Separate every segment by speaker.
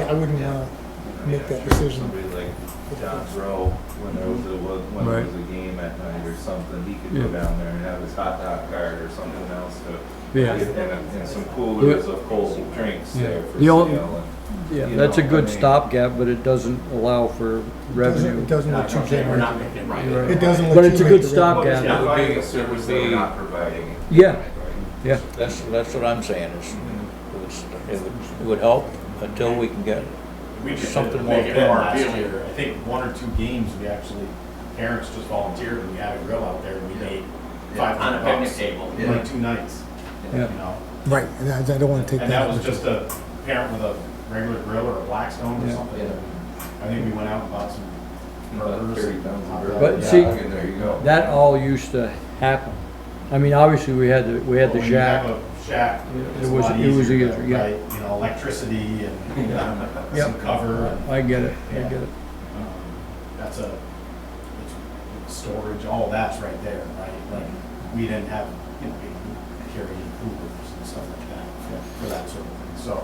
Speaker 1: I wouldn't uh, wanna make that decision.
Speaker 2: Somebody like John Rowe, when there was a, when there
Speaker 3: Right.
Speaker 2: was a game at night or something, he could go
Speaker 3: Yeah.
Speaker 2: down there and have his hot dog cart or something else to.
Speaker 3: Yeah.
Speaker 2: And, and some coolers of cold drinks
Speaker 3: Yeah.
Speaker 2: there for
Speaker 4: The
Speaker 2: sale
Speaker 4: only-
Speaker 2: and.
Speaker 4: Yeah,
Speaker 2: You
Speaker 4: that's a
Speaker 2: know, I
Speaker 4: good
Speaker 2: mean-
Speaker 4: stopgap, but it doesn't allow for revenue.
Speaker 1: Doesn't, doesn't
Speaker 5: Not
Speaker 1: let you
Speaker 5: gonna say We're not
Speaker 1: generate.
Speaker 5: making it right.
Speaker 4: Right.
Speaker 1: It doesn't let you.
Speaker 4: But it's a
Speaker 1: make
Speaker 4: good
Speaker 1: the revenue.
Speaker 4: stopgap.
Speaker 2: Well, it's
Speaker 4: Yeah.
Speaker 2: not providing a service, they are not providing it.
Speaker 4: Yeah, yeah.
Speaker 6: That's, that's what I'm saying is, it's- it would, it would help until we can get,
Speaker 5: We just
Speaker 6: Something
Speaker 5: something
Speaker 6: more
Speaker 5: more
Speaker 6: than
Speaker 5: more
Speaker 6: last
Speaker 5: appealing. I think one or two games, we actually, parents just volunteered and we had a grill out there and we made five
Speaker 7: On a
Speaker 5: hundred
Speaker 7: picnic
Speaker 5: bucks.
Speaker 7: table.
Speaker 5: in Like two nights, you
Speaker 4: Yeah.
Speaker 5: know?
Speaker 1: Right, and I I don't wanna take that.
Speaker 5: And that was just a parent with a regular grill or a Blackstone or
Speaker 4: Yeah.
Speaker 5: something.
Speaker 2: Yeah.
Speaker 5: I think we went out and bought some
Speaker 2: About
Speaker 5: burgers.
Speaker 2: thirty
Speaker 5: and
Speaker 2: pounds of
Speaker 5: hot
Speaker 2: burger.
Speaker 5: dogs.
Speaker 4: But
Speaker 5: Yeah.
Speaker 4: see,
Speaker 2: I mean, there you go.
Speaker 4: That all used to happen. I mean, obviously, we had the, we had
Speaker 5: But
Speaker 4: the
Speaker 5: when Oh, you have
Speaker 4: jack.
Speaker 5: a shack,
Speaker 4: Yeah,
Speaker 5: it's
Speaker 4: it
Speaker 5: a
Speaker 4: was-
Speaker 5: lot
Speaker 4: it was
Speaker 5: easier,
Speaker 4: easier, yeah.
Speaker 5: right? You know, electricity and
Speaker 4: Yeah.
Speaker 5: some cover and,
Speaker 4: I get it, I
Speaker 5: Yeah.
Speaker 4: get it.
Speaker 5: um, that's a, it's- it's storage, all that's right there, right? Like, we didn't have, you know, we carried coolers and stuff like that for that sort of thing, so,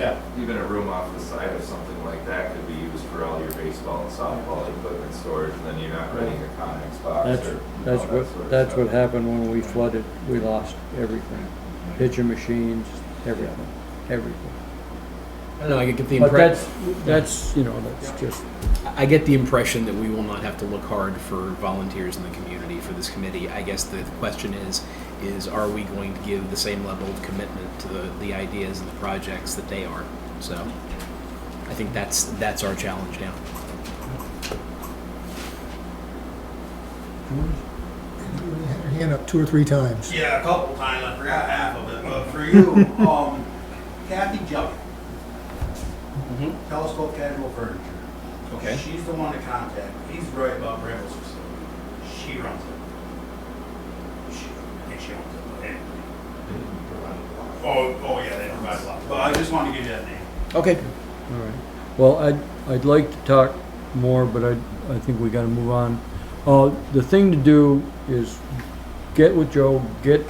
Speaker 5: yeah.
Speaker 2: Even a room off the side or something like that could be used for all your baseball and softball equipment storage, and then you're not renting a Conex box or.
Speaker 4: That's,
Speaker 2: you know,
Speaker 4: that's
Speaker 2: that sort
Speaker 4: what,
Speaker 2: of
Speaker 4: that's what
Speaker 2: stuff.
Speaker 4: happened when we flooded. We lost everything. Pitching machines, everything, everything.
Speaker 8: I don't know, I get the
Speaker 4: But that's,
Speaker 8: impression,
Speaker 4: that's, you know, that's just,
Speaker 8: I get the impression that we will not have to look hard for volunteers in the community for this committee. I guess the question is, is are we going to give the same level of commitment to the, the ideas and the projects that they are? So I think that's, that's our challenge now.
Speaker 1: Your Hand up two or three times.
Speaker 9: Yeah, a couple times, I forgot half of it, but for you, um, Kathy Jump.
Speaker 5: Mm-hmm.
Speaker 9: Telescope Casual Furniture.
Speaker 8: Okay.
Speaker 9: She's the one to contact, he's right about Bramble's facility, she runs it. She, I think she owns it, but anyway. Oh, oh yeah, they provide a lot, but I just wanted to give you that name.
Speaker 8: Okay.
Speaker 4: all right. Well, I'd, I'd like to talk more, but I, I think we gotta move on. Uh, the thing to do is get with Joe, get,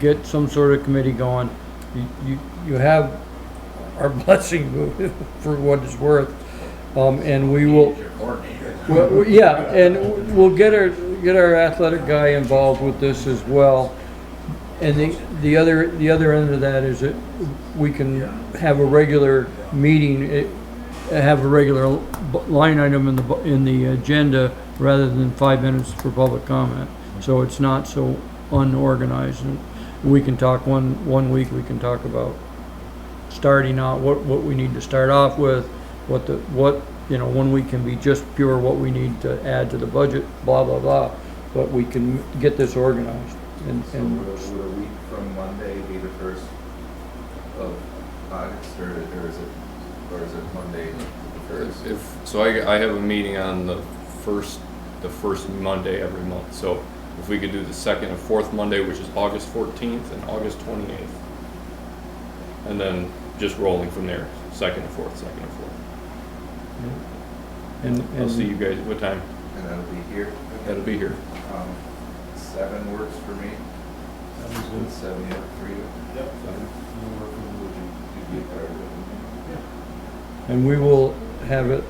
Speaker 4: get some sort of committee going. You, you, you have our blessing for what it's worth. Um, and we will,
Speaker 7: Your coordinator.
Speaker 4: Well, we- yeah, and we'll get our, get our athletic guy involved with this as well. And the, the other, the other end of that is that we can have a regular meeting, eh, have a regular bu- line item in the, bu- in the agenda rather than five minutes for public comment. So it's not so unorganized and we can talk one, one week, we can talk about starting out, what, what we need to start off with, what the, what, you know, one week can be just pure what we need to add to the budget, blah, blah, blah. But we can get this organized and,
Speaker 2: So uh,
Speaker 4: and,
Speaker 2: would, would a week from Monday be the first of August, or, or is it, or is it Monday the first?
Speaker 10: If, so I, I have a meeting on the first, the first Monday every month, so if we could do the second and fourth Monday, which is August fourteenth and August twenty-eighth. And then just rolling from there, second and fourth, second and fourth.
Speaker 4: and,
Speaker 10: I'll see
Speaker 4: and,
Speaker 10: you guys, what time?
Speaker 2: And that'll be here?
Speaker 10: That'll be here.
Speaker 2: Um, seven works for me. Would Seven work for you?
Speaker 5: Yep.
Speaker 2: Seven. You'd be better with
Speaker 4: and we will have it,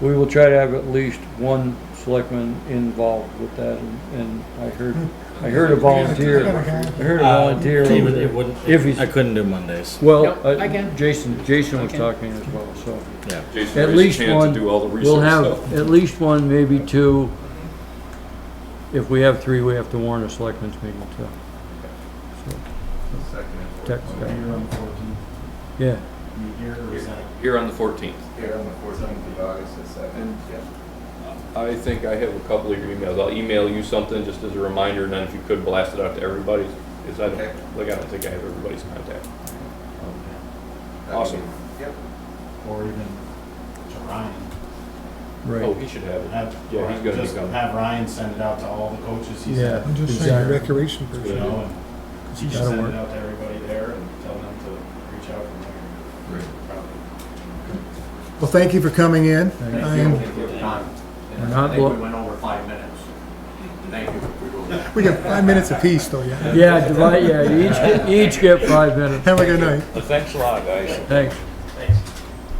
Speaker 4: we will try to have at least one selectman involved with that. And and I heard, I heard a volunteer, I heard a volunteer. over
Speaker 6: Uh, David,
Speaker 4: there.
Speaker 6: it wouldn't,
Speaker 4: If he's-
Speaker 6: I couldn't do Mondays,
Speaker 4: Well,
Speaker 8: Yep, I
Speaker 4: uh,
Speaker 8: can.
Speaker 4: Jason, Jason was
Speaker 8: I can.
Speaker 4: talking as well, so.
Speaker 6: yeah.
Speaker 10: Jason
Speaker 4: At
Speaker 10: raised his
Speaker 4: least
Speaker 10: hand
Speaker 4: one.
Speaker 10: to do all the
Speaker 4: We'll
Speaker 10: research stuff.
Speaker 4: have at least one, maybe two. If we have three, we have to warn a selectmen's meeting too. So,
Speaker 2: the Second and fourth.
Speaker 4: Text
Speaker 2: Monday.
Speaker 4: guy.
Speaker 5: Here on the fourteenth,
Speaker 4: Yeah,
Speaker 5: you here or is that?
Speaker 10: Here on the fourteenth.
Speaker 2: Here on the fourteenth of August at seven.
Speaker 10: Mm.
Speaker 2: Yeah.
Speaker 10: I think I have a couple of your emails. I'll email you something just as a reminder, and then if you could blast it out to everybody, because I
Speaker 2: Okay.
Speaker 10: don't, like, I don't think I have everybody's contact.
Speaker 2: That'd be-
Speaker 10: Awesome.
Speaker 2: Yep.
Speaker 5: Or even to Ryan.
Speaker 10: Oh,
Speaker 4: right.
Speaker 10: he should have it.
Speaker 5: Have,
Speaker 10: Yeah, he's gonna be
Speaker 5: just
Speaker 10: coming.
Speaker 5: have Ryan send it out to all the coaches he's
Speaker 4: Yeah.
Speaker 5: at.
Speaker 1: I'm just saying,
Speaker 4: Exactly.
Speaker 1: recreation
Speaker 5: You
Speaker 1: person.
Speaker 5: know, and
Speaker 4: You
Speaker 5: just
Speaker 4: gotta
Speaker 5: send
Speaker 4: work.
Speaker 5: it out to everybody there and tell them to reach out from there.
Speaker 2: Great.
Speaker 5: Probably.
Speaker 1: Well, thank you for coming in. I am-
Speaker 7: Thank you for your time.
Speaker 4: We're not
Speaker 7: I think
Speaker 4: blo-
Speaker 7: we went over five minutes. Thank you. We really-
Speaker 1: We got five minutes apiece, though, yeah.
Speaker 4: Yeah, divide, yeah, each, get- each get five minutes.
Speaker 1: Have a good night.
Speaker 6: Thanks a lot, guys.
Speaker 4: Thanks.